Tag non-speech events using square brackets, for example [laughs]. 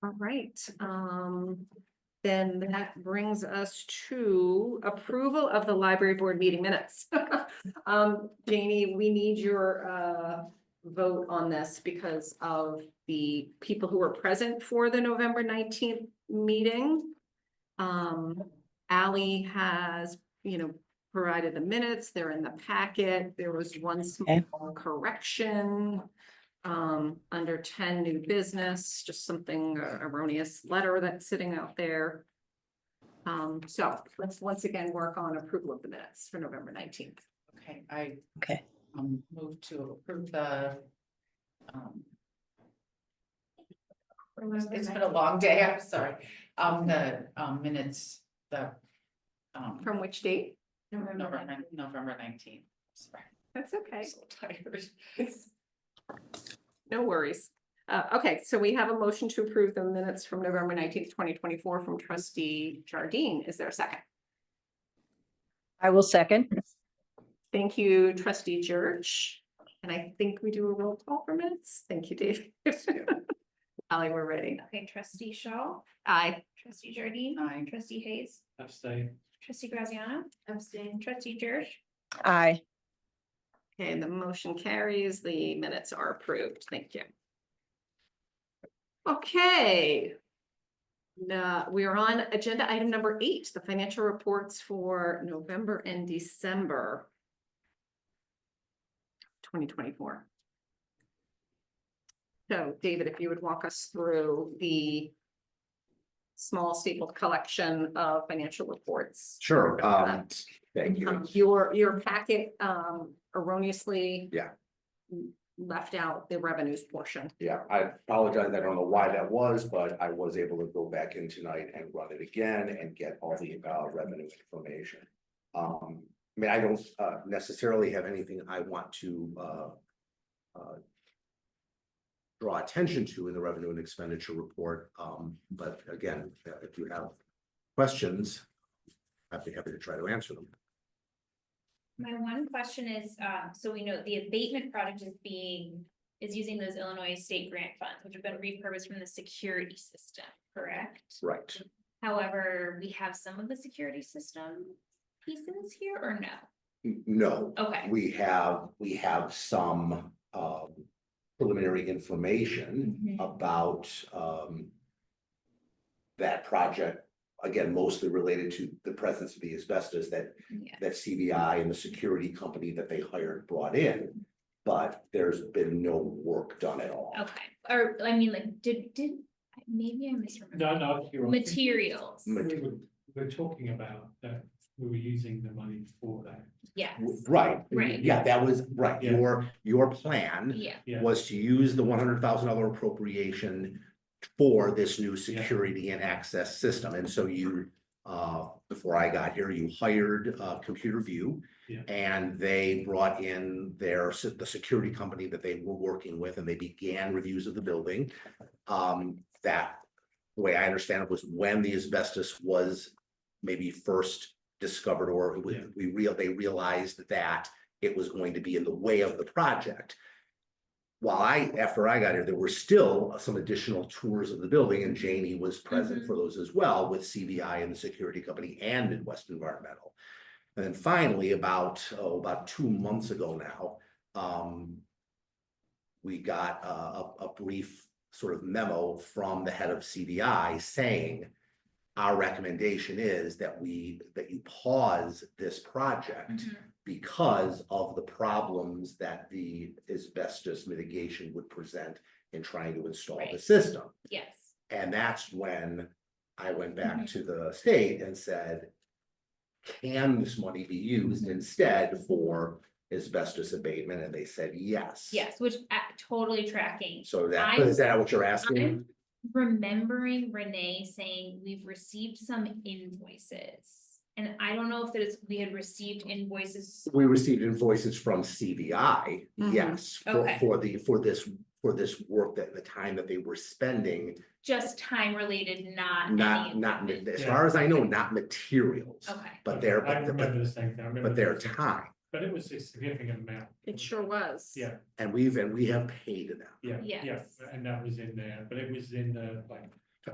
right, um, then that brings us to approval of the library board meeting minutes. [laughs] Um, Janie, we need your, uh, vote on this because of the people who were present for the November nineteenth meeting. Um, Ally has, you know, provided the minutes, they're in the packet, there was one Okay. small correction. Um, under ten new business, just something uh, erroneous letter that's sitting out there. Um, so let's once again work on approval of the minutes for November nineteenth. Okay, I. Okay. Um, move to approve the. um, It's been a long day, I'm sorry, um, the, um, minutes, the. Um, From which date? November, nine- November nineteenth, sorry, That's I'm okay. so tired. [laughs] No worries. Uh, okay, so we have a motion to approve the minutes from November nineteenth, twenty twenty-four from trustee Jardine. Is there a second? I will second. Thank you, trustee Church. And I think we do a roll call for minutes. Thank you, Dave. [laughs] Ally, we're ready. Okay, trustee Shaw, Aye. trustee Jardine, Aye. trustee Hayes, Abstain. trustee Graziano. Abstain. Trustee Jersh, Aye. Okay, the motion carries. The minutes are approved. Thank you. Okay. Now, we are on agenda item number eight, the financial reports for November and December. Twenty twenty-four. So David, if you would walk us through the small stapled collection of financial reports. Sure, um, thank Um, you. Your, your packet um erroneously. Yeah. Left out the revenues portion. Yeah, I apologize. I don't know why that was, but I was able to go back in tonight and run it again and get all the uh revenue information. Um, I mean, I don't uh necessarily have anything I want to uh. uh, Draw attention to in the revenue and expenditure report, um, but again, uh, if you have questions. I'd be happy to try to answer them. my one question is, um, so we know the abatement project is being, is using those Illinois state grant funds, which have been repurposed from the security system, correct? Right. However, we have some of the security system pieces here or no? N- No, Okay, we have, we have some um preliminary information Mhm. about um. That project, again, mostly related to the presence of the asbestos that yeah, that CBI and the security company that they hired brought in. But there's been no work done at all. okay, or, I mean, like, did, did, maybe I misremembered. No, no, you're. on. Materials, Ma- We were, we were talking about that, we were using the money for that. yes, W- Right. Right. Yeah, that was, right, Yeah. your, your plan. yeah, Yeah. was to use the one hundred thousand dollar appropriation for this new security and access system. And so you, uh, before I got here, you hired, uh, Computer View. Yeah. And they brought in their, se- the security company that they were working with and they began reviews of the building. Um, that, the way I understand it was when the asbestos was maybe first discovered or it was- Yeah. we real, they realized that it was going to be in the way of the project while I, after I got here, there were still some additional tours of the building and Janie was present Mhm. for those as well with CBI and the security company and Midwest Environmental. And then finally, about, oh, about two months ago now, um, we got a, a, a brief sort of memo from the head of CBI saying our recommendation is that we, that you pause this project mhm, because of the problems that the asbestos mitigation would present in trying to install the Right. system. yes. And that's when I went back Mhm. to the state and said, can this money be used instead for asbestos abatement? And they said, yes. Yes, which a- totally tracking. So that, I- is that what you're asking? I'm remembering Renee saying we've received some invoices. And I don't know if that is, we had received invoices. We received invoices from CBI, Mhm. yes, for, Mm-hmm. Okay. for the, for this, for this work that, the time that they were spending Just time related, not. Not, any not, equipment. ma- as Yeah. far as I know, not materials, Okay, but their, I but, remember but, the same thing, I remember. but their the same- time. But it was a significant amount. It sure was. Yeah, And we've, and we have paid them. yeah, yeah, Yes. and that was in there, but it was in the, like,